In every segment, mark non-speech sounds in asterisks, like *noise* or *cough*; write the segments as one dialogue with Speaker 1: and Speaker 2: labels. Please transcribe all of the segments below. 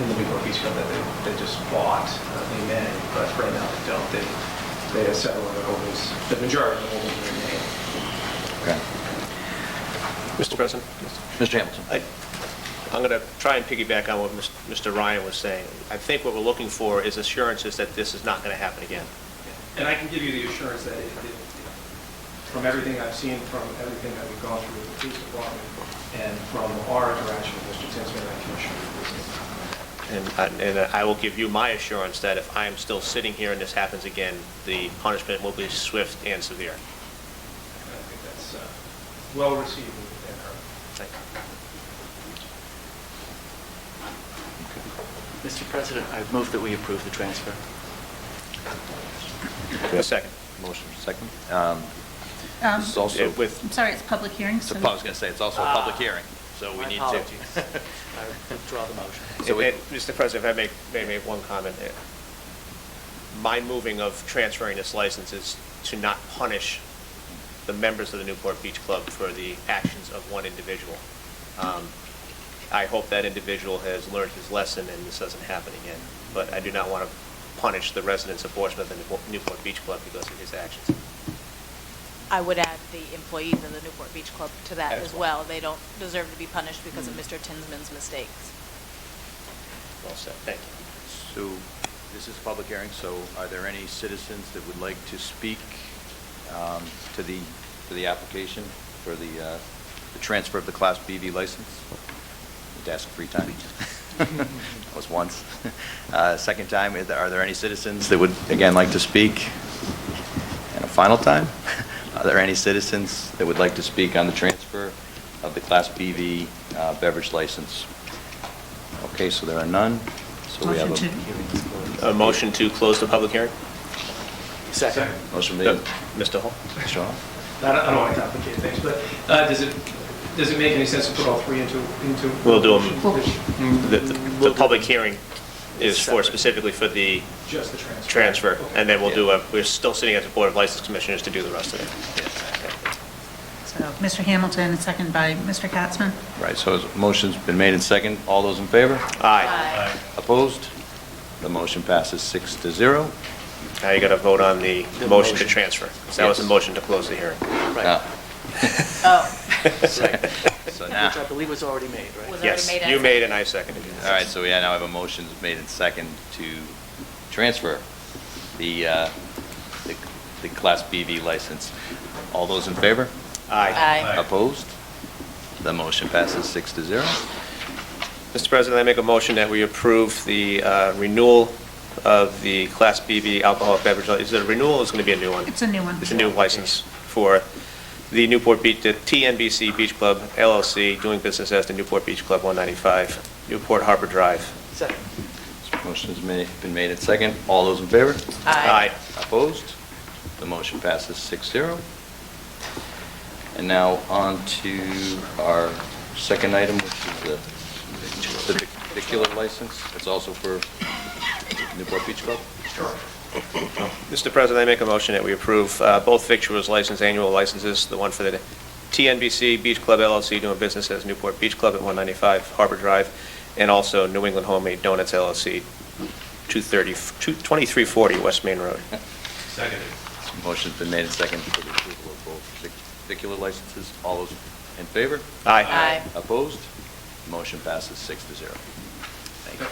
Speaker 1: in the Newport Beach Fund that they, they just bought, uh, they may, but right now they don't. They, they have several of the holdings, the majority of the holdings are in Maine.
Speaker 2: Okay.
Speaker 3: Mr. President,
Speaker 2: Mr. Hamilton?
Speaker 3: I- I'm going to try and piggyback on what Mis- Mr. Ryan was saying. I think what we're looking for is assurances that this is not going to happen again.
Speaker 1: And I can give you the assurance that it, it- from everything I've seen, from everything that we've gone through with the police department, and from our interaction with Mr. Tinsman and Commissioner, uh,
Speaker 3: And I- and I will give you my assurance that if I am still sitting here and this happens again, the punishment will be swift and severe.
Speaker 1: I think that's uh, well received and heard.
Speaker 3: Thank you.
Speaker 4: Mr. President, I move that we approve the transfer.
Speaker 3: A second.
Speaker 2: Motion second. Um,
Speaker 5: Um,
Speaker 2: This is also,
Speaker 3: It- With,
Speaker 5: I'm sorry, it's public hearing,
Speaker 2: so
Speaker 5: so...
Speaker 2: I was going to say, it's also a public
Speaker 4: Ah.
Speaker 2: hearing, so we
Speaker 4: My
Speaker 2: need to.
Speaker 4: apologies. *laughs* I withdraw the motion.
Speaker 2: So we-
Speaker 3: it- it- Mr. President, if I may, may make one comment. there. My moving of transferring this license is to not punish the members of the Newport Beach Club for the actions of one individual. Um, I hope that individual has learned his lesson and this doesn't happen again. But I do not want to punish the residents of Portsmouth and the Newport Beach Club because of his actions.
Speaker 6: I would add the employees of the Newport Beach Club to that
Speaker 3: As
Speaker 6: as well. Mm. They don't deserve to be punished because of Mr. Tinsman's mistakes.
Speaker 3: Well said. Thank you.
Speaker 2: So this is a public hearing, so are there any citizens that would like to speak um, to the, to the application for the, uh, the transfer of the Class BV license? Need to ask three times. *laughs* That was once. *laughs* Uh, Second time, is there- are there any citizens that would, again, like to speak? And a final time, *laughs* are there any citizens that would like to speak on the transfer of the Class BV uh, beverage license? Okay, so there are none, so we have a...
Speaker 5: Motion to-
Speaker 3: A motion to close the public hearing?
Speaker 4: Second.
Speaker 2: Motion made.
Speaker 3: Mr. Hall?
Speaker 2: Sean?
Speaker 1: I don't, I don't want to complicate things, but uh, does it, does it make any sense to put all three into, into?
Speaker 3: We'll do 'em.
Speaker 1: Mm,
Speaker 3: The, the- the public hearing is for specifically for the
Speaker 1: Just the transfer.
Speaker 3: transfer, and then we'll do
Speaker 2: Yeah.
Speaker 3: a, we're still sitting as a Board of License Commissioners to do the rest of it.
Speaker 5: So, Mr. Hamilton, and second by Mr. Katzman.
Speaker 2: Right, so his motion's been made and second. All those in favor?
Speaker 3: Aye.
Speaker 6: Aye.
Speaker 2: Opposed? The motion passes six to zero.
Speaker 3: Now you got to vote on the
Speaker 4: The
Speaker 3: motion to
Speaker 4: motion.
Speaker 3: transfer. 'cause That was a
Speaker 2: Yes.
Speaker 3: motion to close the hearing.
Speaker 2: Uh,
Speaker 4: Right.
Speaker 6: Oh,
Speaker 4: Second.
Speaker 2: So
Speaker 4: Which
Speaker 2: now,
Speaker 4: I believe was already made,
Speaker 6: Was
Speaker 4: right?
Speaker 6: already
Speaker 3: Yes,
Speaker 6: made and
Speaker 3: you
Speaker 6: seconded.
Speaker 3: made and I seconded it.
Speaker 2: all right, so we now have a motion made and second to transfer the, uh, the the Class BV license. All those in favor?
Speaker 3: Aye.
Speaker 6: aye.
Speaker 2: Opposed? The motion passes six to zero.
Speaker 3: Mr. President, I make a motion that we approve the uh, renewal of the Class BV alcoholic beverage. li- Is it a renewal or is it going to be a new one?
Speaker 5: It's a new one.
Speaker 3: It's a new license for the Newport Beach, the TNBC Beach Club LLC, doing business as the Newport Beach Club 195, Newport Harbor Drive.
Speaker 4: Second.
Speaker 2: Motion's ma- been made and second. All those in favor?
Speaker 6: Aye.
Speaker 2: Opposed? The motion passes 6-0. And now on to our second item, which is the the vicular license. It's also for Newport Beach Club.
Speaker 3: Mr. President, I make a motion that we approve uh, both victuals license, annual licenses, the one for the TNBC Beach Club LLC, doing business as Newport Beach Club at 195 Harbor Drive, and also New England Homemade Donuts LLC, 230 2340 West Main Road.
Speaker 2: Motion's been made and second for the approval of both vicular licenses. All those in favor?
Speaker 6: Aye.
Speaker 2: Opposed? Motion passes 6-0. Thank you.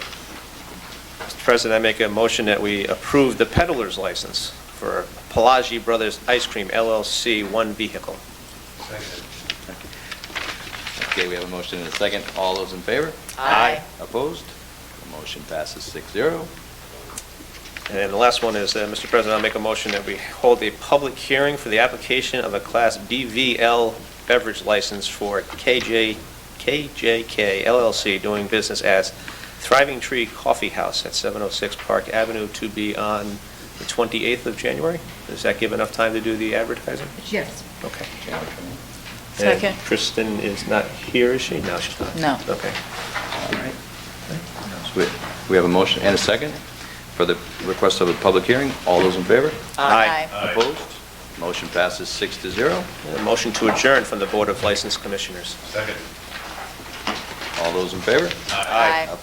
Speaker 3: Mr. President, I make a motion that we approve the peddler's license for Pelagi Brothers Ice Cream LLC, one vehicle.
Speaker 2: Okay, we have a motion and a second. All those in favor?
Speaker 6: Aye.
Speaker 2: Opposed? The motion passes 6-0.
Speaker 3: And then the last one is, uh, Mr. President, I'll make a motion that we hold a public hearing for the application of a Class BVL beverage license for KJ, KJK LLC, doing business as Thriving Tree Coffee House at 706 Park Avenue, to be on the 28th of January. Does that give enough time to do the advertising?
Speaker 5: Yes.
Speaker 3: Okay. And
Speaker 6: Second.
Speaker 3: Kristen is not here, is she? No, she's not.
Speaker 6: No.
Speaker 3: Okay.
Speaker 2: So we- We have a motion and a second for the request of a public hearing. All those in favor?
Speaker 3: Aye.
Speaker 2: Opposed? Motion passes six to zero.
Speaker 3: And a motion to adjourn from the Board of License Commissioners.
Speaker 2: All those in favor?
Speaker 6: Aye.